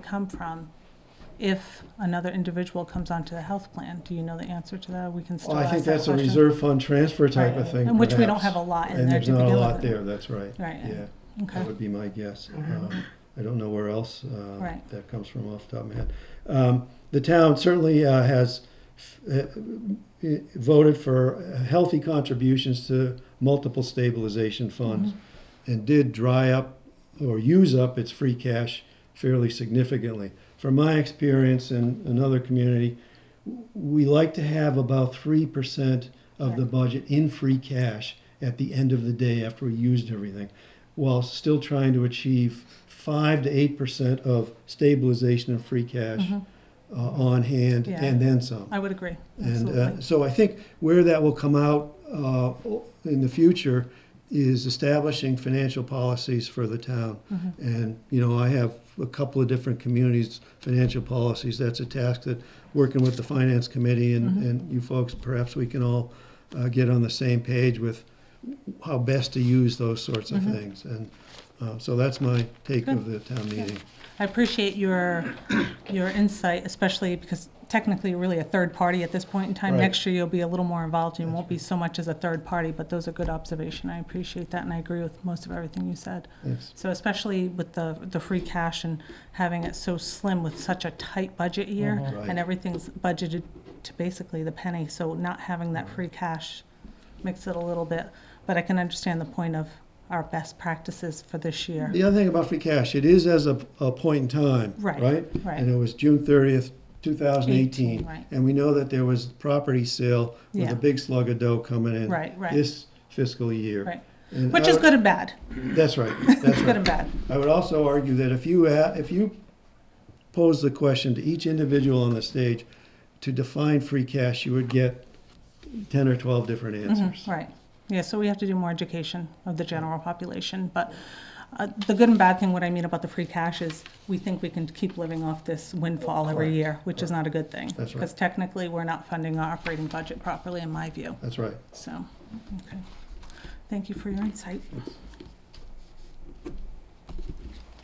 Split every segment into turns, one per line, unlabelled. come from if another individual comes onto the health plan? Do you know the answer to that? We can still
Well, I
ask
think
that
that's a
question.
reserve fund transfer type of thing.
In which we don't
perhaps.
have a lot in
And
there
there's
to
not
begin
a
with.
lot there, that's right.
Right,
Yeah,
okay,
that would be my guess.
Mhm.
Um, I don't know where else uh,
Right.
that comes from off the top of my head. Um, The town certainly uh, has f- uh, i- voted for healthy contributions to multiple stabilization funds
Mm-hmm.
and did dry up or use up its free cash fairly significantly. From my experience in another community, w- we like to have about 3% of the budget in free cash at the end of the day after we used everything, while still trying to achieve 5 to 8% of stabilization and free cash uh, on hand
Mm-hmm. Yeah.
and then some.
I would agree,
And uh,
absolutely.
so I think where that will come out uh, in the future is establishing financial policies for the town. And, you know, I have a couple of different communities' financial policies. That's a task that, working with the finance committee and, and you folks, perhaps we can all uh, get on the same page with how best to use those sorts of things. And uh, so that's my take of the town meeting.
I appreciate your, your insight, especially because technically you're really a third party at this point in time.
Right.
Next year, you'll be a little more involved, you won't be so much as a third party, but those are good observation. I appreciate that, and I agree with most of everything you said.
Thanks.
So especially with the, the free cash and having it so slim with such a tight budget year,
Mhm. Right.
and everything's budgeted to basically the penny, so not having that free cash makes it a little bit, but I can understand the point of our best practices for this year.
The other thing about free cash, it is as a, a point in time,
Right,
right?
right.
And it was June thirtieth, two thousand
Eighteen,
eighteen.
right.
And we know that there was property sale with
Yeah.
a big slug of dough coming in.
Right, right.
This fiscal year.
Right.
And
Which
I
is
would-
good and bad,
That's right, that's
it's good
right.
and bad,
I would also argue that if you, a- if you pose the question to each individual on the stage to define free cash, you would get ten or twelve different answers.
right. Yeah, so we have to do more education of the general population, but uh, the good and bad thing, what I mean about the free cash is, we think we can keep living off this windfall every
Correct,
year, which is not a good thing.
That's right.
Because technically, we're not funding our operating budget properly, in my view.
That's right.
So, okay. Thank you for your insight.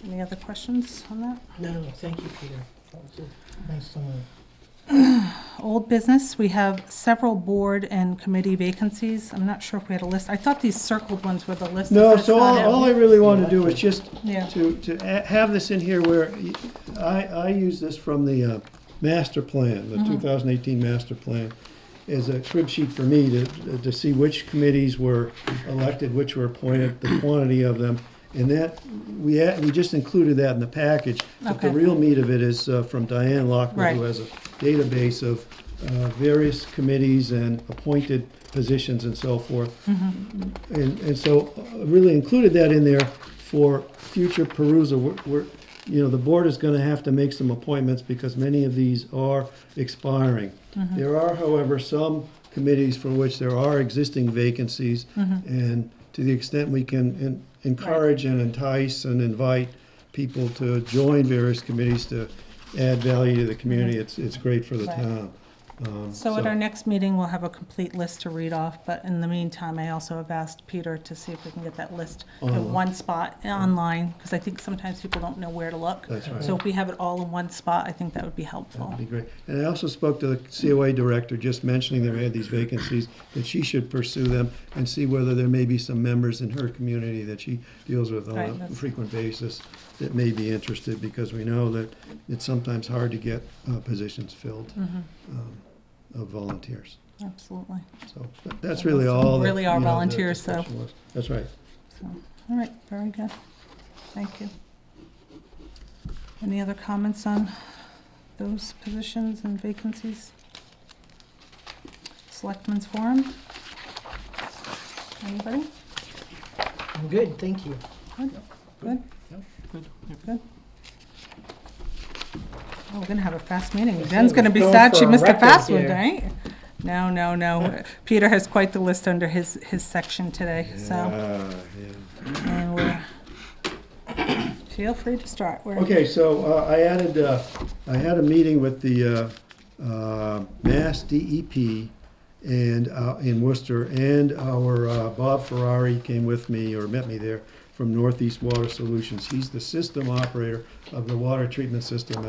Any other questions on that?
No, thank you, Peter. That was a nice summary.
Old business, we have several board and committee vacancies. I'm not sure if we had a list. I thought these circled ones were the list. Is
No,
that
so all,
not it?
all I really want to do is just
Yeah.
to, to a- have this in here where y- I, I use this from the uh, master plan,
Mm-hmm.
the two thousand eighteen master plan, as a crib sheet for me to, to see which committees were elected, which were appointed, the quantity of them. And that, we, a- we just included that in the package, but the
Okay.
real meat of it is uh, from Diane Lockwood, who
Right.
has a database of uh, various committees and appointed positions and so forth. And, and so uh, really included that in there for future perusal. We're, we're, you know, the board is gonna have to make some appointments because many of these are expiring.
Mm-hmm.
There are, however, some committees for which there are existing vacancies.
Mm-hmm.
And to the extent we can en- encourage and entice and invite people to join various committees to add value to the community, it's, it's great for the
Mm-hmm. Right.
town. Um,
So at our next meeting, we'll have a complete list to read off, but in the meantime, I also have asked Peter to see if we can get that list in
Online.
one spot uh, online, because I think sometimes people don't know where to look.
That's right.
So if we have it all in one spot, I think that would be helpful.
That'd be great. And I also spoke to the COA director, just mentioning that we had these vacancies, that she should pursue them and see whether there may be some members in her community that she deals with on
Right,
a
that's-
frequent basis that may be interested, because we know that it's sometimes hard to get uh, positions filled
Mm-hmm.
um, of volunteers.
Absolutely.
So that- that's really all. that,
Really are
you know, the
volunteers, so-
discussion was. That's right.
So, All right, very good. Thank you. Any other comments on those positions and vacancies? Selectmen's Forum? Anybody?
I'm good, thank you.
Good, good. Good. Oh, we're gonna have a fast meeting. Jen's gonna be
Going
sad she
for a
missed a
record
fast one,
here.
right? No, no, no. Peter has quite the list under his, his section today, so.
Yeah, yeah.
and we're- Feel free to start. We're-
Okay, so uh, I added, uh, I had a meeting with the uh, uh, Mass DEP and, uh, in Worcester, and our uh, Bob Ferrari came with me, or met me there, from Northeast Water Solutions. He's the system operator of the water treatment system